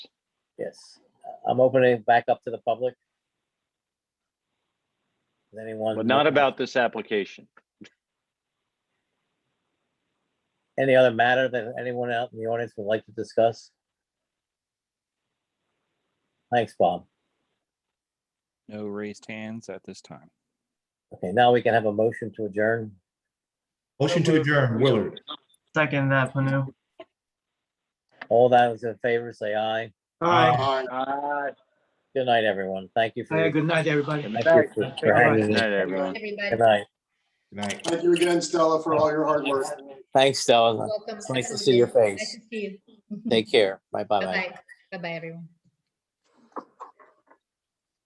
Yes, I'm opening it back up to the public. Does Anyone? But not about this application. Any other matter that anyone out in the audience would like to discuss? Thanks, Bob. No raised hands at this time. Okay, now we can have a motion to adjourn. Motion to adjourn, Willard. Second that, Panu. All those in favor, say aye. Aye. Good night, everyone. Thank you for. Hey, good night, everybody. Thank you for- for Good hanging. in. night, everyone. Everybody. Good night. Good night. Thank you again, Stella, for all your hard work. Thanks, Stella. Welcome. It's nice to see your Nice face. to see you. Take care. Bye bye. Bye-bye. Bye-bye, everyone.